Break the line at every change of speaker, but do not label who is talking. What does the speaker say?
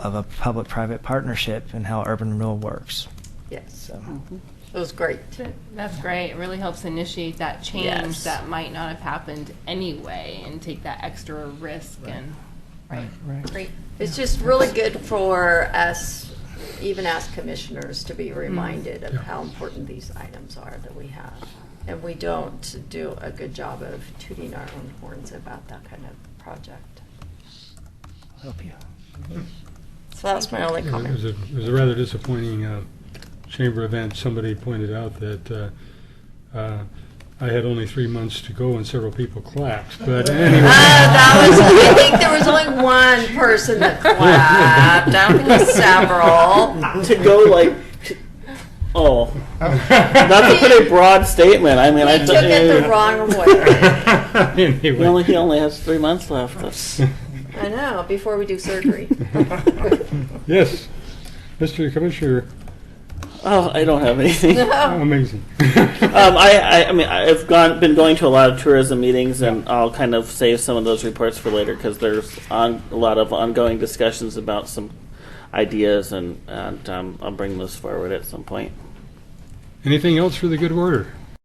of a public-private partnership and how urban renewal works.
Yes,
So-
Mhm. it was great.
That- That's great. It really helps initiate that change
Yes.
that might not have happened anyway and take that extra risk and, right,
Right.
great.
It's just really good for us, even as commissioners, to be reminded of
Yeah.
how important these items are that we have. And we don't do a good job of tooting our own horns about that kind of project.
Help you.
So that was my only
It was a-
comment.
it was a rather disappointing uh, chamber event. Somebody pointed out that uh, uh, I had only three months to go and several people clapped, but
Uh,
anyway.
that was, I think there was only one person that clapped, I don't think it was several.
to go like, oh, not to put a broad statement. I mean, I
He took it the wrong way.
He only, he
Anyway.
only has three months left.
I know, before we do surgery.
Yes, Mr. Commissioner,
Oh, I don't have anything. Um,
Oh.
amazing.
I, Um, I, I mean, I've gone, been going to a lot of tourism meetings, and I'll kind of save some of those reports for later because there's on a lot of ongoing discussions about some ideas, and, and um, I'll bring those forward at some point.
Anything else for the good order?